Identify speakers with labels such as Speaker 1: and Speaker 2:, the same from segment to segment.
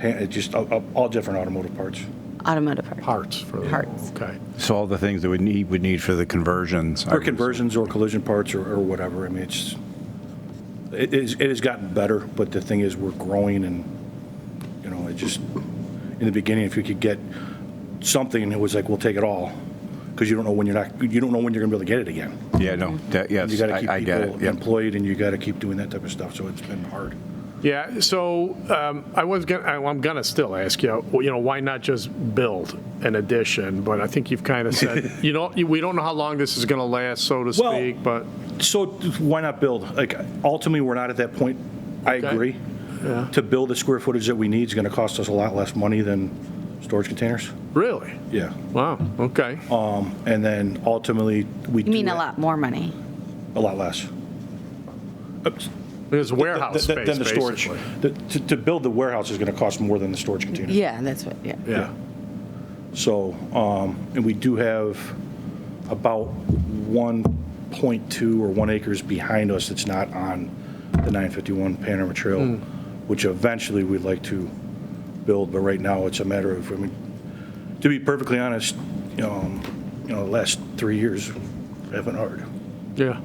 Speaker 1: hand- just all- all- all different automotive parts.
Speaker 2: automotive parts.
Speaker 3: Parts for the.
Speaker 2: Parts.
Speaker 3: Okay.
Speaker 4: So all the things that we need, would need for the conversions.
Speaker 1: Or conversions or collision parts or or whatever. I mean, it's, it is- it has gotten better, but the thing is, we're growing and, you know, it just, in the beginning, if you could get something, it was like, we'll take it all, because you don't know when you're not, you don't know when you're going to be able to get it again.
Speaker 4: Yeah, no, that- yes,
Speaker 1: You got to keep
Speaker 4: I I get it.
Speaker 1: people
Speaker 4: Yep.
Speaker 1: employed and you got to keep doing that type of stuff, so it's been hard.
Speaker 3: Yeah, so um, I was gonna, I- I'm gonna still ask you, well, you know, why not just build an addition? But I think you've kind of said, you know, we don't know how long this is gonna last, so to
Speaker 1: Well-
Speaker 3: speak, but,
Speaker 1: So why not build? Like, ultimately, we're not at that point. I
Speaker 3: Okay.
Speaker 1: agree. To build the square footage that we need is going to cost us a lot less money than storage containers.
Speaker 3: really?
Speaker 1: Yeah.
Speaker 3: Wow, okay.
Speaker 1: Um, and then ultimately, we.
Speaker 2: You mean a lot more money?
Speaker 1: A lot less.
Speaker 3: It's
Speaker 1: Th-
Speaker 3: warehouse
Speaker 1: th-
Speaker 3: space,
Speaker 1: Than the storage.
Speaker 3: basically.
Speaker 1: The- To, to build the warehouse is going to cost more than the storage container.
Speaker 2: Yeah, that's what, yeah.
Speaker 3: Yeah,
Speaker 1: So, um, and we do have about 1.2 or 1 acres behind us that's not on the 951 Panorama Trail, which eventually we'd like to build, but right now it's a matter of, I mean, to be perfectly honest, um, you know, the last three years have been hard.
Speaker 3: yeah,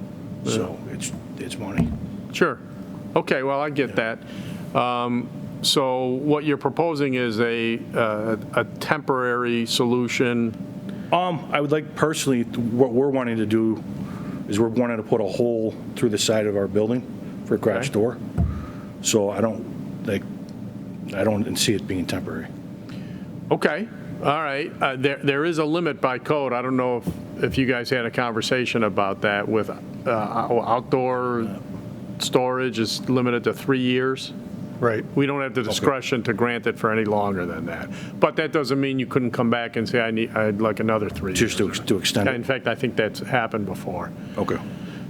Speaker 1: So it's, it's money.
Speaker 3: sure. Okay, well, I get that. Um, So what you're proposing is a, uh, a temporary solution,
Speaker 1: Um, I would like personally, what we're wanting to do is we're wanting to put a hole through the side of our building for a garage
Speaker 3: Okay.
Speaker 1: door. So I don't, like, I don't see it being temporary.
Speaker 3: Okay, all right. Uh, There, There is a limit by code. I don't know if, if you guys had a conversation about that with uh, ou- outdoor storage is limited to three years.
Speaker 5: Right.
Speaker 3: We don't have the discretion to grant it for any longer than that. But that doesn't mean you couldn't come back and say, I need, I'd like another three years.
Speaker 1: Just to, to extend
Speaker 3: In
Speaker 1: it.
Speaker 3: fact, I think that's happened before.
Speaker 1: Okay.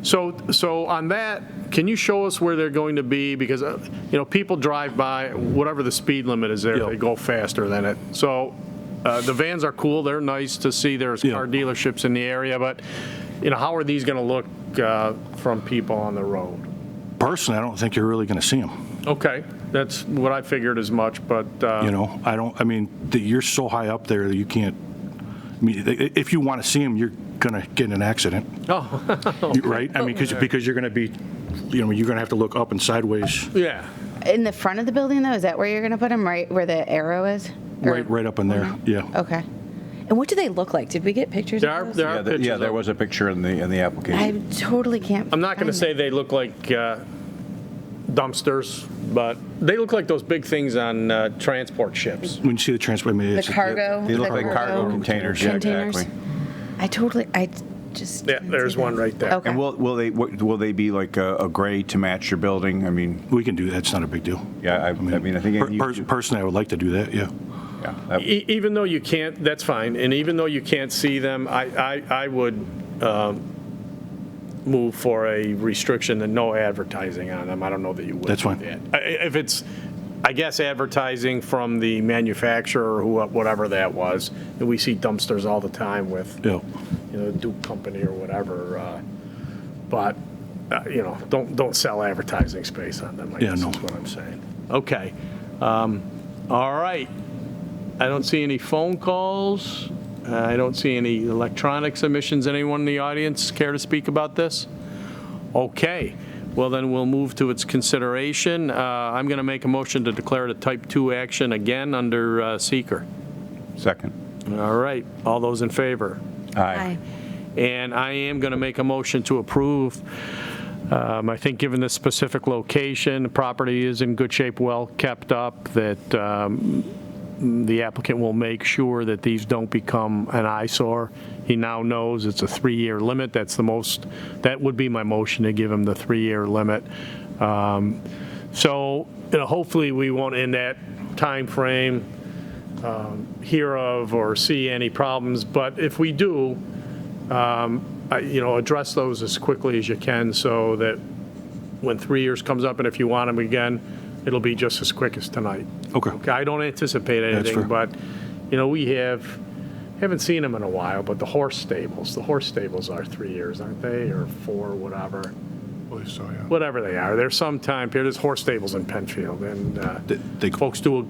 Speaker 3: So, so on that, can you show us where they're going to be? Because, uh, you know, people drive by, whatever the speed limit is there,
Speaker 1: Yeah.
Speaker 3: they go faster than it. So uh, the vans are cool, they're nice to see, there's
Speaker 1: Yeah.
Speaker 3: car dealerships in the area, but, you know, how are these going to look uh, from people on the road?
Speaker 1: Personally, I don't think you're really going to see them,
Speaker 3: Okay, that's what I figured as much, but, uh,
Speaker 1: you know? I don't, I mean, that you're so high up there that you can't, I mean, i- i- if you want to see them, you're going to get in an accident,
Speaker 3: oh,
Speaker 1: You- right? I mean, because, because you're going to be, you know, you're going to have to look up and sideways,
Speaker 3: yeah,
Speaker 2: In the front of the building, though, is that where you're going to put them? Right where the arrow is? Or-
Speaker 1: right, right up in there,
Speaker 3: Mm-hmm. Oh.
Speaker 1: yeah.
Speaker 2: Okay. And what do they look like? Did we get pictures
Speaker 3: there
Speaker 2: of
Speaker 3: are,
Speaker 2: those?
Speaker 3: there
Speaker 4: Yeah,
Speaker 3: are
Speaker 4: th-
Speaker 3: pictures.
Speaker 4: Yeah, there
Speaker 3: of-
Speaker 4: was a picture in the, in the
Speaker 2: I
Speaker 4: application.
Speaker 2: totally can't.
Speaker 3: I'm not going to
Speaker 2: find
Speaker 3: say
Speaker 2: it.
Speaker 3: they look like uh, dumpsters, but they look like those big things on uh, transport ships.
Speaker 1: When you see the transport, I mean,
Speaker 2: The
Speaker 1: it's.
Speaker 2: cargo.
Speaker 4: They look
Speaker 2: the
Speaker 4: like cargo containers, yeah,
Speaker 2: Containers.
Speaker 4: exactly.
Speaker 2: I totally, I just.
Speaker 3: Yeah,
Speaker 2: didn't see
Speaker 3: there's
Speaker 2: that.
Speaker 3: one right there.
Speaker 2: Okay.
Speaker 4: And will, will they, what- will they be like a a gray to match your building? I mean,
Speaker 1: We can do that, it's not a big deal.
Speaker 4: yeah, I I mean, I think.
Speaker 1: Per-
Speaker 4: you-
Speaker 1: per- Personally, I would like to do that, yeah.
Speaker 4: yeah, that-
Speaker 3: E- Even though you can't, that's fine, and even though you can't see them, I, I, I would um, move for a restriction and no advertising on them. I don't know that you would.
Speaker 1: That's
Speaker 3: do
Speaker 1: fine.
Speaker 3: that. I- I- If it's, I guess, advertising from the manufacturer or who- whatever that was, and we see dumpsters all the time with
Speaker 1: Yeah,
Speaker 3: you know, Duke Company or whatever. Uh, but uh, you know, don't don't sell advertising space on them. I
Speaker 1: Yeah,
Speaker 3: guess
Speaker 1: no.
Speaker 3: is what I'm saying. Okay. Um, all right. I don't see any phone calls. Uh, I don't see any electronic submissions. Anyone in the audience care to speak about this? Okay. Well, then we'll move to its consideration. Uh, I'm going to make a motion to declare it a type 2 action again under uh, seeker.
Speaker 4: Second.
Speaker 3: All right. All those in favor?
Speaker 4: Aye.
Speaker 3: And I am going to make a motion to approve. Um, I think, given the specific location, the property is in good shape, well kept up, that um, the applicant will make sure that these don't become an eyesore. He now knows it's a three-year limit. That's the most, that would be my motion to give him the three-year limit. Um, So, you know, hopefully, we won't in that timeframe um, hear of or see any problems. But if we do, um, I- you know, address those as quickly as you can so that when three years comes up and if you want them again, it'll be just as quick as tonight.
Speaker 1: okay.
Speaker 3: Okay, I don't anticipate anything,
Speaker 1: fair.
Speaker 3: but, you know, we have, haven't seen them in a while, but the horse stables, the horse stables are three years, aren't they, or four, whatever,
Speaker 5: Believe so, yeah.
Speaker 3: whatever they are. There's some time period, there's horse stables in Penfield, and uh,
Speaker 1: They- they-
Speaker 3: folks do a